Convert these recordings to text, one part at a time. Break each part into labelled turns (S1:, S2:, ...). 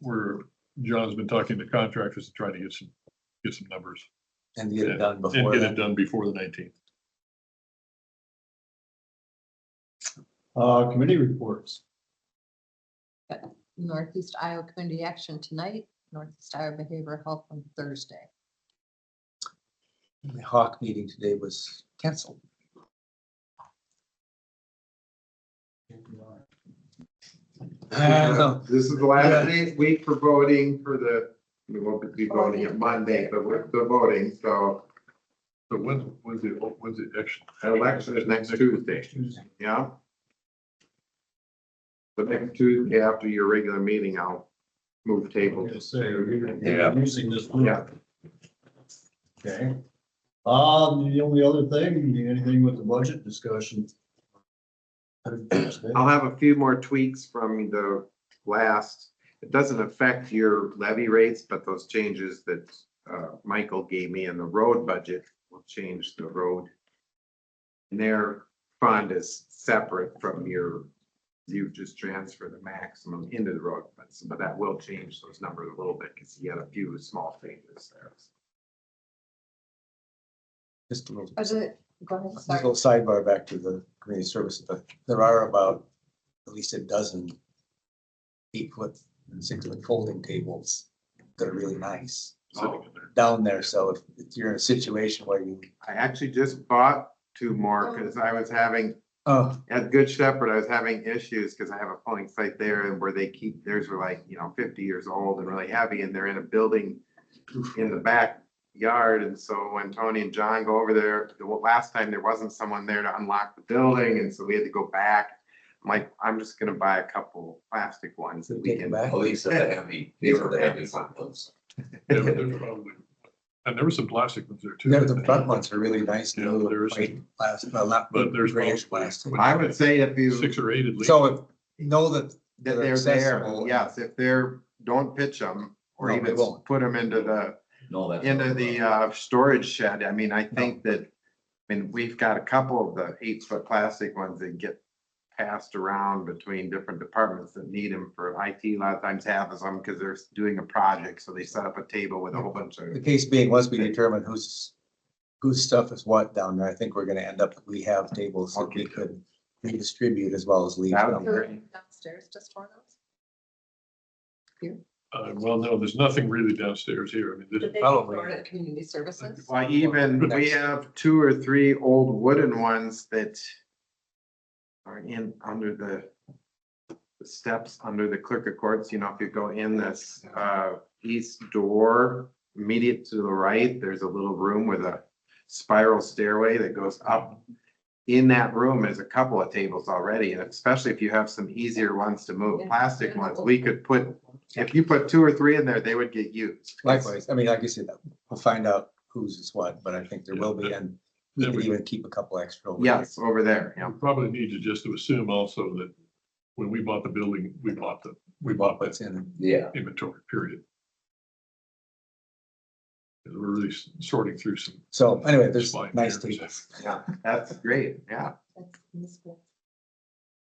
S1: where John's been talking to contractors and trying to get some, get some numbers
S2: and get
S1: Yeah,
S2: it done
S1: and
S2: before
S1: get it
S2: then.
S1: done before the nineteenth.
S2: Uh, committee reports.
S3: Northeast Iowa Community Action tonight, Northeast Iowa Behavioral Health on Thursday.
S2: The Hawk meeting today was canceled.
S4: Uh,
S2: Uh,
S5: Uh,
S2: Well,
S4: This is the last day- week for voting for the, we won't be voting on Monday, but we're the voting, so
S1: So when, when's the, when's the action?
S4: election is next Tuesday, yeah? The next Tuesday after your regular meeting, I'll move table. Yeah.
S5: Using this.
S4: Yeah,
S5: Okay. Um, the only other thing, anything with the budget discussion?
S4: I'll have a few more tweaks from the last, it doesn't affect your levy rates, but those changes that uh, Michael gave me in the road budget will change the road. And their fund is separate from your, you just transfer the maximum into the road, but, but that will change those numbers a little bit, because he had a few small changes there.
S2: Just a little,
S3: Is it, go ahead,
S2: just a
S3: sorry.
S2: little sidebar back to the community service, but there are about at least a dozen eight foot and six foot folding tables that are really nice
S1: Sitting in there.
S2: down there. So if if you're in a situation where you,
S4: I actually just bought two more, because I was having
S2: oh,
S4: At Good Shepherd, I was having issues because I have a polling site there and where they keep, theirs were like, you know, fifty years old and really heavy and they're in a building in the backyard. And so when Tony and John go over there, the last time there wasn't someone there to unlock the building and so we had to go back. I'm like, I'm just gonna buy a couple plastic ones that we
S2: Take
S4: can.
S2: them back.
S6: At least the heavy, these are the heavy ones.
S1: Yeah, but there's probably- And there were some plastic ones there too.
S2: there, the front ones are really nice.
S1: Yeah, there is-
S2: Last, well, not.
S1: But there's
S2: grayish plastic.
S1: probably-
S4: I would say if you.
S1: Six or eight at least.
S2: So if, know that
S4: That
S2: They're
S4: they're there,
S2: accessible.
S4: yes, if they're, don't pitch them or
S2: No, they
S4: even
S2: won't.
S4: put them into the
S6: No, that's.
S4: into the uh storage shed, I mean, I think that, I mean, we've got a couple of the eight foot plastic ones that get passed around between different departments that need them for IT, a lot of times have them because they're doing a project, so they set up a table with a whole bunch
S2: The
S4: of.
S2: case being, once we determine whose, whose stuff is what down there, I think we're gonna end up, we have tables that we could redistribute as well as leave.
S4: That would
S2: them.
S4: be great.
S3: Downstairs, just for those?
S1: Uh, well, no, there's nothing really downstairs here. I mean, this,
S2: Probably.
S3: Florida Community Services.
S4: Why even, we
S2: Next.
S4: have two or three old wooden ones that are in, under the the steps, under the clerk of courts, you know, if you go in this uh east door, immediate to the right, there's a little room with a spiral stairway that goes up. In that room is a couple of tables already, and especially if you have some easier ones to move,
S3: Yeah.
S4: plastic ones, we could put, if you put two or three in there, they would get used.
S2: Likewise, I mean, like I said, we'll find out whose is what, but I think there will be, and we
S1: Yeah,
S2: could
S1: we-
S2: even keep a couple extra. over there.
S4: Yes, over there, yeah.
S1: we probably need to just to assume also that when we bought the building, we bought the, we bought that
S2: What's in them.
S6: Yeah,
S1: inventory period. 'Cause We're really s- sorting through some.
S2: So anyway, there's
S1: Slide
S2: nice
S1: there, so-
S2: tables.
S4: Yeah, that's great, yeah,
S3: That's in the school.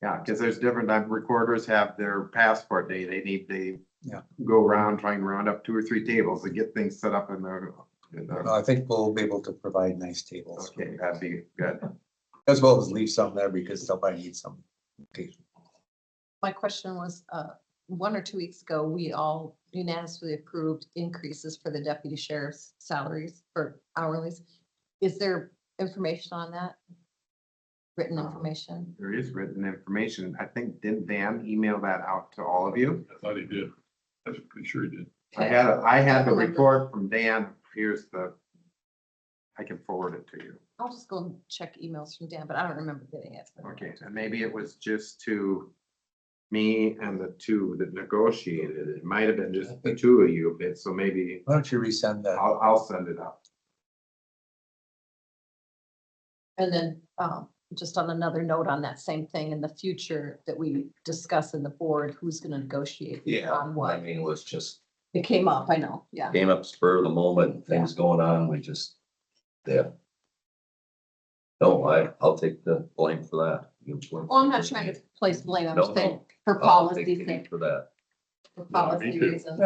S4: yeah, because there's different, like recorders have their passport day, they need, they
S2: Yeah.
S4: go around, trying to round up two or three tables to get things set up in their, in their-
S2: Well, I think we'll be able to provide nice tables,
S4: okay, that'd be good.
S2: as well as leave some there because somebody needs some.
S3: My question was, uh, one or two weeks ago, we all unanimously approved increases for the deputy sheriff's salaries or hourlies. Is there information on that? Written information?
S4: There is written information, I think, did Dan email that out to all of you?
S1: I thought he did. I'm pretty sure he did.
S4: I had, a- I had the
S3: Okay.
S4: report from Dan, here's the, I can forward it to you,
S3: I'll just go and check emails from Dan, but I don't remember getting it.
S4: okay, and maybe it was just to me and the two that negotiated, it might have been just the two of you, but so maybe
S2: Why don't you resend that?
S4: I'll, I'll send it out.
S3: And then, um, just on another note on that same thing, in the future that we discuss in the board, who's gonna negotiate?
S6: yeah,
S3: On
S6: I
S3: what?
S6: mean, it was just,
S3: It came up, I know, yeah.
S6: came up spur of the moment, things going on, we just, yeah. No, I, I'll take the blame for that.
S3: Well, I'm not trying to place blame, I'm
S6: No,
S3: just saying
S6: no.
S3: for
S6: I'll
S3: policy
S6: take the
S3: sake.
S6: heat For that,
S3: for
S1: Yeah, me
S3: policy
S1: too.
S3: reasons.